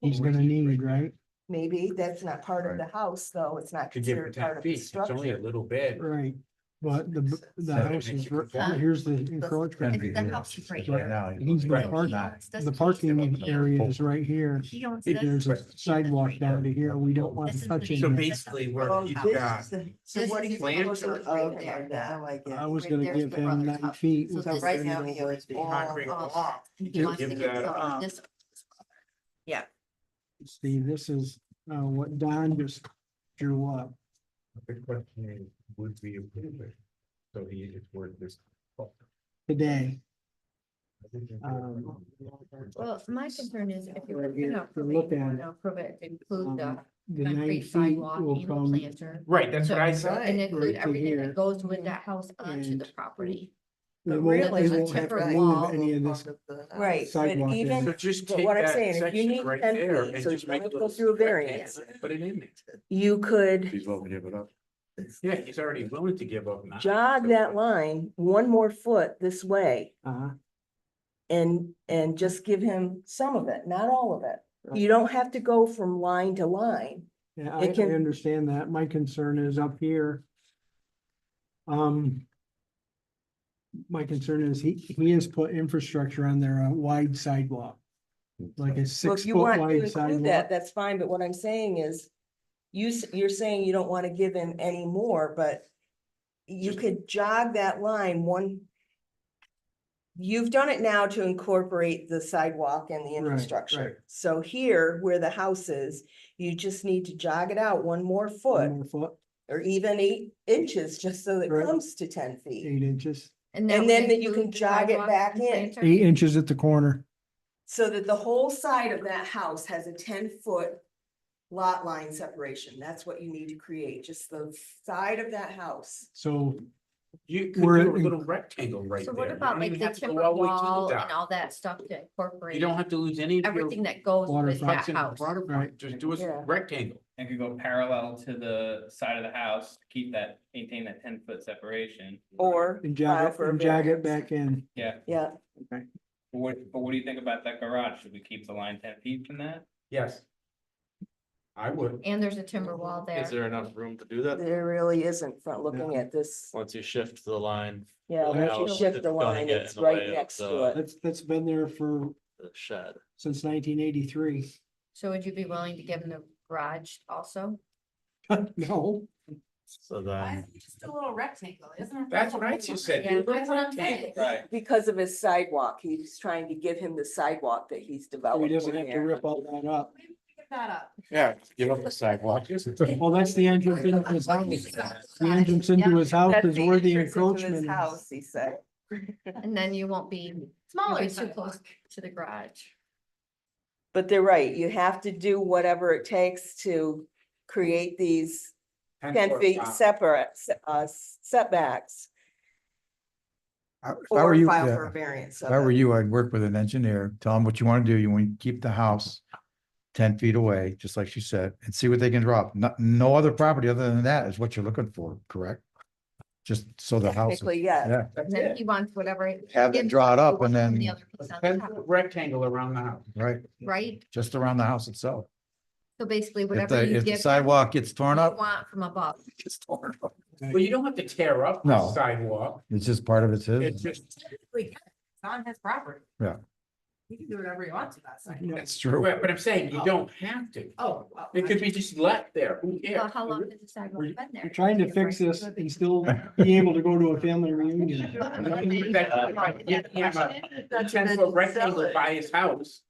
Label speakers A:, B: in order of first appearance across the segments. A: he's gonna need, right?
B: Maybe that's not part of the house, though. It's not
C: Could give her
B: considered part
C: ten
B: of the
C: feet, it's only a
B: structure.
C: little bit.
A: Right, but the, b- the
C: So it
A: house
C: makes
A: is,
C: it
A: r-
C: conform.
A: here's the
D: Ten
A: encroachment.
D: feet
E: the
D: here.
E: house is right
D: Right
E: here.
D: now. you
A: He's
D: know,
A: got
D: it's
A: park-
D: not-
A: The parking area is right here.
E: He owns
A: If
E: this.
A: there's a sidewalk down to here, we don't want
E: This
A: to
E: is the
A: touch it.
E: big-
C: So
A: touching.
E: this
A: it.
E: is the
C: basically where
E: front
C: you
E: house.
C: got-
B: So what are you
C: Plan-
B: proposing of
F: Right
B: now, I
A: I
B: guess?
A: was
F: right
A: gonna
F: there's
A: give
F: the
A: him
F: brother's
A: nine
F: house.
A: feet
E: So
A: without
E: this
F: Right
E: is-
F: now,
A: bringing it
F: you
A: over.
F: it's all
C: Concrete
F: off.
C: block.
E: And he
A: Give-
E: wants to
C: give
E: get
C: that
E: some
F: up.
E: of this.
A: See, this is, uh, what Don just drew up.
C: The question is, would we approve it? So he is worth this.
A: today. Um,
C: Well,
E: Well, my concern is if you're
A: Right here,
E: gonna
A: if you
E: approve
A: look
E: it,
A: at
E: you
A: it,
E: wanna approve it, include the
A: um, The nine
E: concrete
A: feet
E: sidewalk
A: will
E: and the
A: come,
E: planter.
C: Right, that's what I said.
E: And include
A: to
E: everything
A: here,
E: that goes with that house onto
A: and-
E: the property.
A: we
B: But
A: won't,
B: really,
A: we
B: the
A: won't have to
B: temporary
A: move
B: wall
A: any of this.
B: Right, but
A: Sidewalk is-
C: So
B: even,
C: just
B: but
C: take
B: what I'm
C: that
B: saying, if you
C: section
B: need
C: right
B: 10
C: there
B: feet,
C: and
B: so
C: just
B: you
C: make
B: don't
C: a
B: go
C: little
B: through a
C: variance.
B: variance.
C: Put it in there.
B: you could
D: He's willing to give it up.
C: Yeah, he's already willing to give up. nine.
B: jog that line one more foot this way
A: Uh-huh.
B: and, and just give him some of it, not all of it. You don't have to go from line to line.
A: Yeah,
B: It
A: I, I
B: can-
A: understand that. My concern is up here. Um. My concern is he, he has put infrastructure on there, a wide sidewalk, like a
B: Well,
A: six
B: if you
A: foot
B: want to
A: wide
B: include that,
A: sidewalk.
B: that's fine, but what I'm saying is, you, s- you're saying you don't want to give him any more, but you could jog that line one. You've done it now to incorporate the sidewalk and the
A: Right, right.
B: infrastructure. So here, where the house is, you just need to jog it out one more foot
A: one more Foot,
B: or even eight inches, just so it
A: Mm. Right.
B: comes to ten feet.
A: eight inches,
E: that
B: And
E: would
B: then that you can
E: include the
B: jog it
E: sidewalk
B: back
E: and
B: in.
E: planter?
A: eight inches at the corner.
B: So that the whole side of that house has a ten foot lot line separation. That's what you need to create, just the side of that house.
A: So
C: You could
A: We're
C: do a
A: in-
C: little rectangle right
E: So
C: there.
E: what
C: You
E: about
C: don't
E: like
C: even
E: the
C: have to go
E: timber
C: all the way to the
E: wall
C: dock.
E: and all that stuff to
C: You
E: incorporate
C: don't have to lose any of your.
E: everything that goes with that
C: fronts and
E: house?
C: water front. Just do
B: Yeah.
C: a rectangle.
G: and could go parallel to the side of the house, to keep that, maintain that ten foot separation.
B: Or,
A: and
B: File
A: jog it,
B: for a
A: and jog it
B: variance.
A: back in.
G: Yeah,
B: yeah,
G: but what, but what do you think about that garage? Should we keep the line ten feet from that?
C: Yes. I would.
E: And there's a timber wall there.
H: Is there enough room to do that?
B: there really isn't front looking at this.
H: Once you shift the line,
B: Yeah,
H: Well,
B: once you
H: house,
B: shift
H: it's
B: the
H: gonna
B: line,
H: get in
B: it's
H: the way
B: right
H: of
B: next to
H: the-
B: it.
A: That's, that's been there for,
H: the shed,
A: since nineteen eighty-three.
E: So would you be willing to give him the garage also?
A: No,
H: so then.
E: just a little rectangle, isn't it?
C: That's what I just said. do a
E: Yeah,
C: little
E: that's what I'm saying.
C: rectangle.
G: Right.
B: Because of his sidewalk, he's trying to give him the sidewalk that he's
A: he
B: developed.
A: doesn't have to rip all that up.
D: Yeah, give up the sidewalk.
A: Well, that's the entrance into his house. The entrance into his house is where the encroachment is.
B: House, he said.
E: And then you won't be, you'll
F: Smaller
E: be too close
F: sidewalk.
E: to the garage.
B: But they're right, you have to do whatever it takes to create these ten
C: foot
B: feet
C: dock.
B: separate, uh, setbacks.
D: I- If I were
B: Or
D: you,
B: file for
D: yeah,
B: a variance.
D: if
B: of
D: I were
B: it.
D: you, I'd work with an engineer, tell him what you want to do. You want to keep the house ten feet away, just like she said, and see what they can drop. No, no other property other than that is what you're looking for, correct? Just so the house,
B: Technically, yes.
D: yeah,
C: That's
E: And then
C: it.
E: he wants whatever.
D: have it
E: gives
D: draw it
E: the
D: up
E: one
D: and
E: from the
D: then,
E: other piece on
C: Ten
E: top,
C: foot rectangle around the house.
D: right,
E: Right?
D: just around the house itself.
E: So basically
D: If
E: whatever
D: the,
E: you
D: if the
E: give.
D: sidewalk gets torn
E: you
D: up,
E: Want from above.
D: it gets torn up.
C: Well, you don't have to tear up the
D: No.
C: sidewalk.
D: It's just part of it's his.
C: It's just,
F: It's on his property.
D: Yeah.
F: You can do whatever you want to that side.
A: Yeah.
D: That's true.
C: but but I'm saying you don't have to.
F: Oh. well,
C: It could be just left there. Who
E: Well,
C: cares?
E: how long has the sidewalk
A: you-
E: been there?
A: We're trying to fix this and still be able to go to a family reunion.
C: That's fine. Give him a Ten foot rectangle by his house.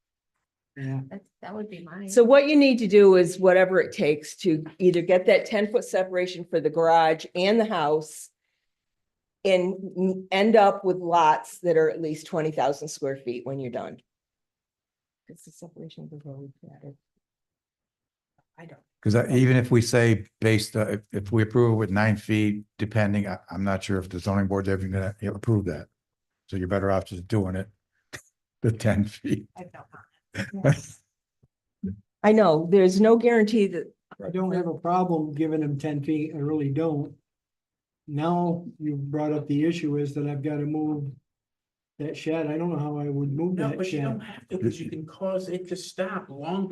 A: Yeah,
E: That, that would be mine.
B: So what you need to do is whatever it takes to either get that ten foot separation for the garage and the house. And n- end up with lots that are at least twenty thousand square feet when you're done. It's the separation of the road.
F: I don't.
D: Because even if we say based, uh, if, if we approve it with nine feet, depending, I, I'm not sure if the zoning board's ever gonna approve that. So you're better off just doing it, the ten feet.
F: I have no comment.
B: I know, there's no guarantee that,
A: I don't have a problem giving him ten feet, I really don't. Now, you brought up the issue is that I've gotta move that shed, I don't know how I would move
C: No,
A: that
C: but you
A: shed.
C: don't have to, because you can cause it to stop long